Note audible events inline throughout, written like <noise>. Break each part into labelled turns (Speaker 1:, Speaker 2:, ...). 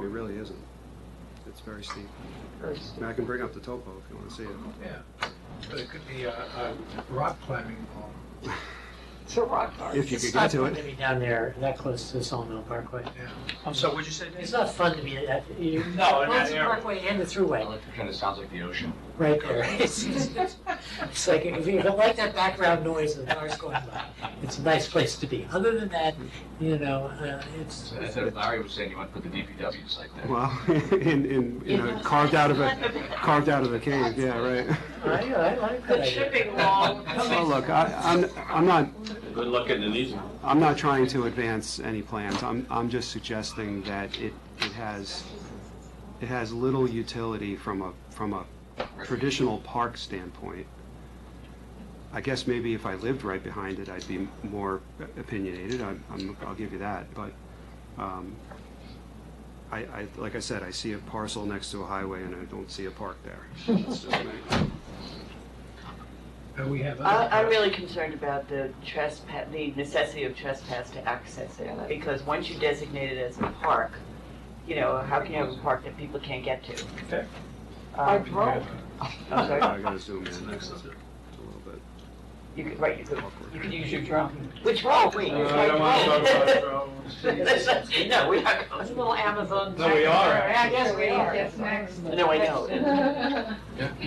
Speaker 1: It really isn't. It's very steep.
Speaker 2: Very
Speaker 1: I mean, I can bring up the topo if you want to see it.
Speaker 3: Yeah, but it could be a, a rock climbing wall.
Speaker 2: It's a rock garden.
Speaker 1: If you could get to
Speaker 4: It's not fun to
Speaker 1: it.
Speaker 4: be down there that close to the Sawmill Parkway.
Speaker 3: Yeah. So what'd you say,
Speaker 4: It's
Speaker 3: Dave?
Speaker 4: not fun to be at, you,
Speaker 3: No, in that
Speaker 4: both the
Speaker 3: area.
Speaker 4: Parkway and the Thruway,
Speaker 5: It kind of sounds like the ocean.
Speaker 4: right
Speaker 6: <laughs>
Speaker 4: there. It's it's- it's like, if you don't like that background noise of cars going by, it's a nice place to be. Other than that, you know, uh, it's,
Speaker 5: So I thought Larry was saying you want to put the DPW site there.
Speaker 1: Well, <laughs> in, in, you know, carved out of a, carved out of a cave, yeah, right.
Speaker 4: I, I like that
Speaker 2: The
Speaker 4: idea.
Speaker 2: shipping wall.
Speaker 1: Oh, look, I, I'm, I'm not,
Speaker 7: Good luck getting an easement.
Speaker 1: I'm not trying to advance any plans. I'm, I'm just suggesting that it, it has, it has little utility from a, from a traditional park standpoint. I guess maybe if I lived right behind it, I'd be more opinionated. I'm, I'm, I'll give you that, but, um, I, I, like I said, I see a parcel next to a highway and I don't see a park there. That's just me.
Speaker 3: Uh, We have.
Speaker 2: I-
Speaker 3: other-
Speaker 2: I'm really concerned about the trespass, the necessity of trespass to access it, because once you designate it as a park, you know, how can you have a park that people can't get to?
Speaker 3: Okay.
Speaker 2: Um,
Speaker 3: We have,
Speaker 2: I'm
Speaker 1: I
Speaker 2: sorry,
Speaker 1: gotta zoom in a
Speaker 3: Next
Speaker 1: little
Speaker 3: up.
Speaker 1: bit.
Speaker 2: you could, right, you could, you could use your
Speaker 6: <laughs>
Speaker 2: drone. Which
Speaker 7: Uh,
Speaker 2: road, wait, it's
Speaker 7: I don't want to talk about drones.
Speaker 2: <laughs> No, we are, it's a little Amazon.
Speaker 7: No, we are.
Speaker 2: I guess we are.
Speaker 8: Yes, next.
Speaker 2: No, I know.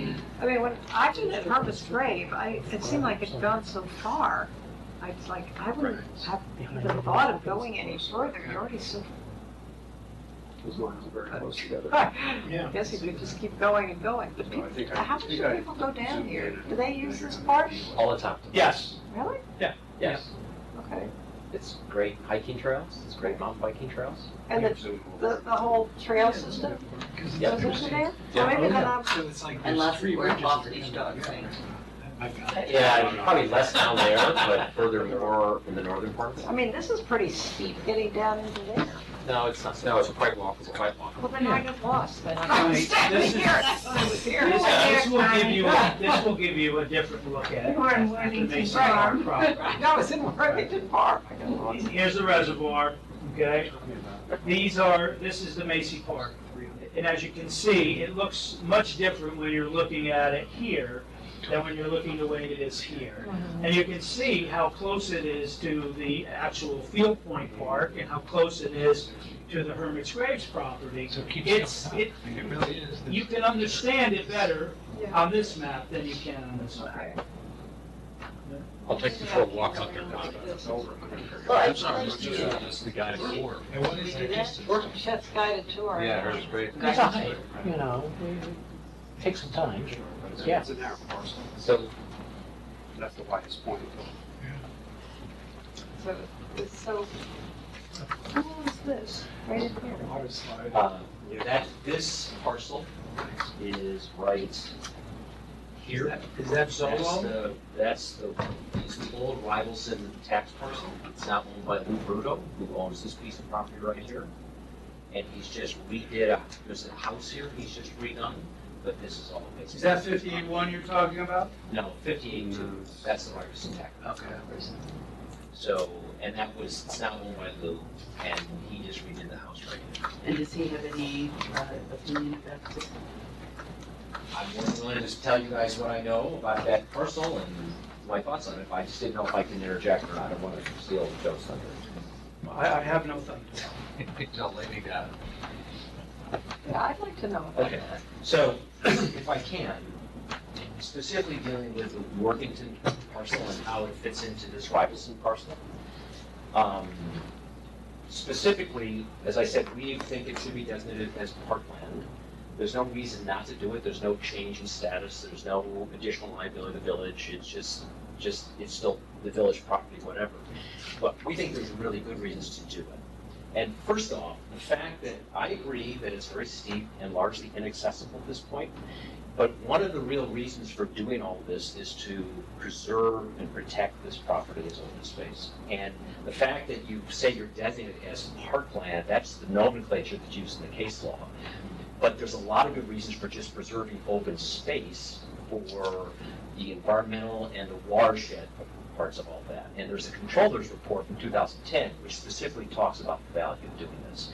Speaker 2: <laughs>
Speaker 8: I mean, when I did at Harvest Grave, I, it seemed like it'd gone so far. I was like, I wouldn't have even thought of going any further, you're already so
Speaker 1: Those lines are very close
Speaker 8: <laughs>
Speaker 1: together.
Speaker 8: far.
Speaker 3: Yeah.
Speaker 8: I guess you could just keep going and going, but people, how much do people go down here? Do they use this park?
Speaker 6: all the time.
Speaker 3: Yes,
Speaker 8: Really?
Speaker 6: Yes.
Speaker 8: Okay.
Speaker 6: It's great hiking trails, it's great mountain biking trails.
Speaker 8: And the, the, the whole trail system,
Speaker 6: Yeah.
Speaker 8: does it there?
Speaker 6: Yeah.
Speaker 8: Or maybe then I'm,
Speaker 3: so it's
Speaker 2: <laughs>
Speaker 3: like.
Speaker 2: And
Speaker 3: there's
Speaker 2: lots,
Speaker 3: three
Speaker 2: we're
Speaker 3: ridges
Speaker 2: lots
Speaker 3: there.
Speaker 2: of these dogs, right?
Speaker 3: I've got it.
Speaker 6: Yeah, probably less down there, but further more in the northern parts.
Speaker 8: I mean, this is pretty steep getting down into there.
Speaker 6: No, it's not, no, it's quite walkable, quite walkable.
Speaker 8: Well, then I get lost, then
Speaker 3: Right,
Speaker 8: I'm standing
Speaker 3: this is-
Speaker 8: here, and I thought I was here.
Speaker 3: This this will give you, this will give you a different look at it.
Speaker 8: You are in
Speaker 3: That's not the
Speaker 8: Worthington
Speaker 3: Mason Park
Speaker 8: Farm.
Speaker 3: problem.
Speaker 8: No, it's in Worthington Park. I got lost.
Speaker 9: Here's the reservoir, okay? These are, this is the Macy Park. And as you can see, it looks much different when you're looking at it here than when you're looking the way it is here.
Speaker 8: Mm-hmm.
Speaker 9: And you can see how close it is to the actual Field Point Park and how close it is to the Hermit's Graves property.
Speaker 3: So it keeps.
Speaker 9: It's,
Speaker 3: going
Speaker 9: it,
Speaker 3: up. It really is.
Speaker 9: you can understand it better on this map than you can on this map.
Speaker 7: I'll take the short walk out there. Tom.
Speaker 2: Well,
Speaker 7: I'm sorry, I'm just- just the guy at four.
Speaker 3: And what
Speaker 2: we
Speaker 3: is
Speaker 2: do
Speaker 3: it?
Speaker 2: that?
Speaker 3: Just a-
Speaker 2: Workshops guided tour.
Speaker 5: Yeah, it was great.
Speaker 4: It's a hike, you know, take some time. Yeah.
Speaker 1: It's a narrow parcel.
Speaker 6: So
Speaker 1: That's the widest point.
Speaker 8: So, it's so, what is this? Right in here.
Speaker 3: Water slide.
Speaker 6: Uh, That, this parcel is right here.
Speaker 3: Is that
Speaker 6: That's
Speaker 3: Zolo?
Speaker 6: the, that's the, it's the old Rivalson tax parcel. It's now owned by Lou Bruto, who owns this piece of property right here. And he's just redid, a- there's a house here he's just redone, but this is all basically.
Speaker 3: Is that fifty-one you're talking about?
Speaker 6: No, fifty-eight two, that's the Rivalson tax.
Speaker 3: Okay.
Speaker 6: So, and that was, it's now owned by Lou, and he just redid the house right here.
Speaker 2: And does he have any uh, opinion about this?
Speaker 6: I'm more than willing to just tell you guys what I know about that parcel and my thoughts on it. I just didn't know if I can interject or not. I don't want to steal Joe's thunder.
Speaker 9: I, I have no thunder.
Speaker 5: <laughs> Don't let me down.
Speaker 8: Yeah, I'd like to know about
Speaker 6: Okay.
Speaker 8: that.
Speaker 6: So, if I can, specifically dealing with the Worthington parcel and how it fits into this Rivalson parcel. Um, Specifically, as I said, we think it should be designated as parkland. There's no reason not to do it, there's no change in status, there's no additional liability to the village, it's just, just, it's still the village property, whatever. But we think there's really good reasons to do it. And first off, the fact that I agree that it's very steep and largely inaccessible at this point, but one of the real reasons for doing all this is to preserve and protect this property as open space. And the fact that you say you're designated as parkland, that's the nomenclature that's used in the case law. But there's a lot of good reasons for just preserving open space for the environmental and the watershed parts of all that. And there's a controller's report from 2010, which specifically talks about the value of doing this.